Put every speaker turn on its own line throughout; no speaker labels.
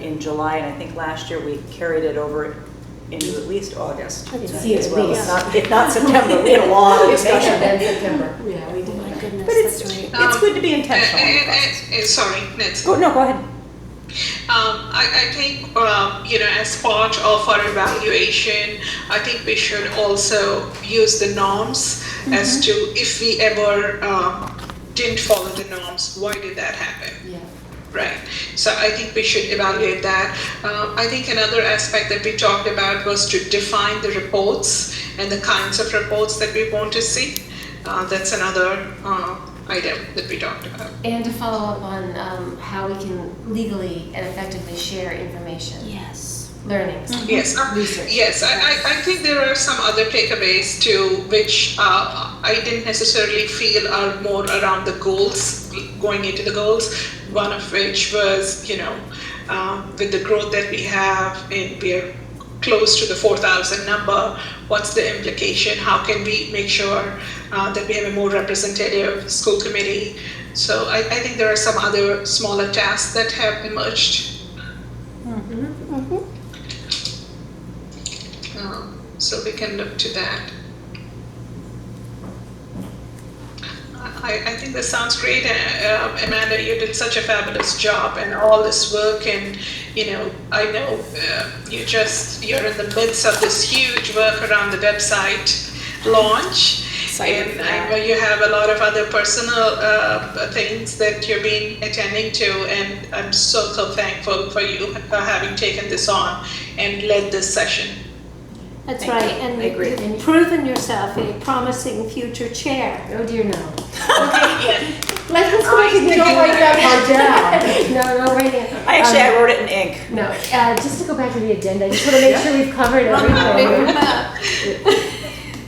in July, and I think last year we carried it over into at least August. as
That's right.
At
well.
least.
It's not, it's not September, we had a long discussion.
Then September.
Yeah, we
Oh
did
my
that.
goodness,
But it's,
that's right.
it's good to be intentional in the
And,
process.
and, and eh, sorry, Nancy.
Go, no, go ahead.
Um, I, I think, um, you know, as part of our evaluation, I think we should also use the norms
Mm-hmm.
as to if we ever um, didn't follow the norms, why did that happen?
Yeah.
Right. So I think we should evaluate that. Um, I think another aspect that we talked about was to define the reports and the kinds of reports that we want to see. Uh, that's another uh, item that we talked about.
And to follow up on um, how we can legally and effectively share information,
Yes.
learnings.
Yes, um,
Research.
yes, I, I, I think there are some other takeaways too, which uh, I didn't necessarily feel are more around the goals, going into the goals. One of which was, you know, um, with the growth that we have, and we are close to the 4,000 number, what's the implication? How can we make sure uh, that we have a more representative school committee? So I, I think there are some other smaller tasks that have emerged. Um, So we can look to that. I, I think this sounds great. Uh, um, Amanda, you did such a fabulous job and all this work and, you know, I know uh, you just, you're in the midst of this huge work around the website launch.
Excited
And
for
I
that.
know you have a lot of other personal uh, things that you've been attending to and I'm so, so thankful for you for having taken this on and led this session.
That's
Thank
right,
you.
and
I agree.
you've proven yourself a promising future chair.
Oh dear, no.
Let us go
You don't write that part down.
No, no, right now.
I actually,
Um,
I wrote it in ink.
No, uh, just to go back to the agenda, I just want to make sure we've covered everything.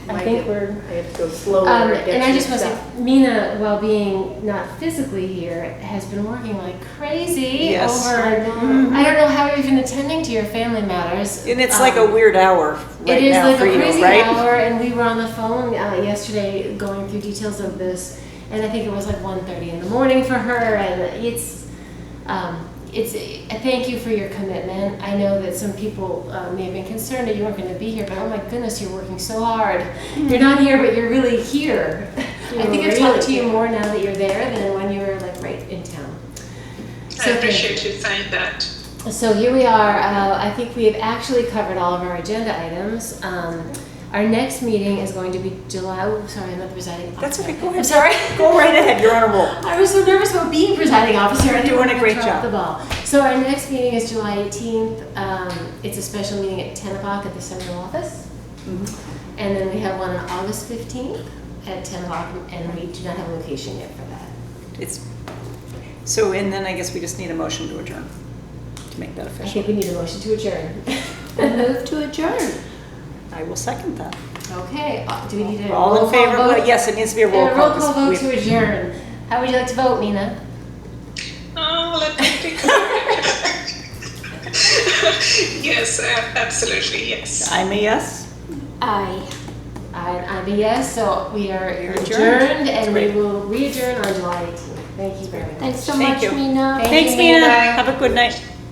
I think we're.
I have to go slower.
Um,
or get
and I
you
just want to
stuff.
say, Mina, while being not physically here, has been working like crazy
Yes.
over.
I know.
I don't know how you've been attending to your family matters.
And it's like a
Um,
weird hour right
it is
now
like
for
a
you,
crazy
right?
hour, and we were on the phone uh, yesterday going through details of this, and I think it was like 1.30 in the morning for her, and it's. Um, it's a thank you for your commitment. I know that some people uh, may have been concerned that you weren't going to be here, but oh my goodness, you're working so hard.
Mm-hmm.
You're not here, but you're really here. I think I've talked to you more now that you're there than when you were like right in town.
I
So thank you.
appreciate you saying that.
So here we are. Uh, I think we have actually covered all of our agenda items. Um, our next meeting is going to be July. Oh, sorry, I'm not the presiding officer.
That's okay, go
I'm
ahead.
sorry.
Go right ahead, you're on a roll.
I was so nervous about being presiding officer. I didn't
You're doing
want
a
to
great job.
drop the ball. So our next meeting is July 18th. Um, it's a special meeting at 10 o'clock at the central office.
Mm-hmm.
And then we have one on August 15th at 10 o'clock, and we do not have a location yet for that.
It's, so, and then I guess we just need a motion to adjourn to make that
I
official.
think we need a motion to adjourn.
Move to adjourn.
I will second that.
okay. uh, Do we need a
All
roll
in
call
favor,
vote?
well, yes, it needs to be a
And a
roll call. 'cause
vote
we-
to adjourn. How would you like to vote, Mina?
Oh, let me think. yes, a- absolutely, yes.
I'm a yes.
Aye.
I, I'm a yes, so we are
You're
adjourned,
adjourned.
and we
Great.
will re-adjourn on July 18th. Thank you very much.
Thanks so
Thank
much,
you.
Mina.
Thank
Thanks,
you,
Mina.
Mina.
Have a good night.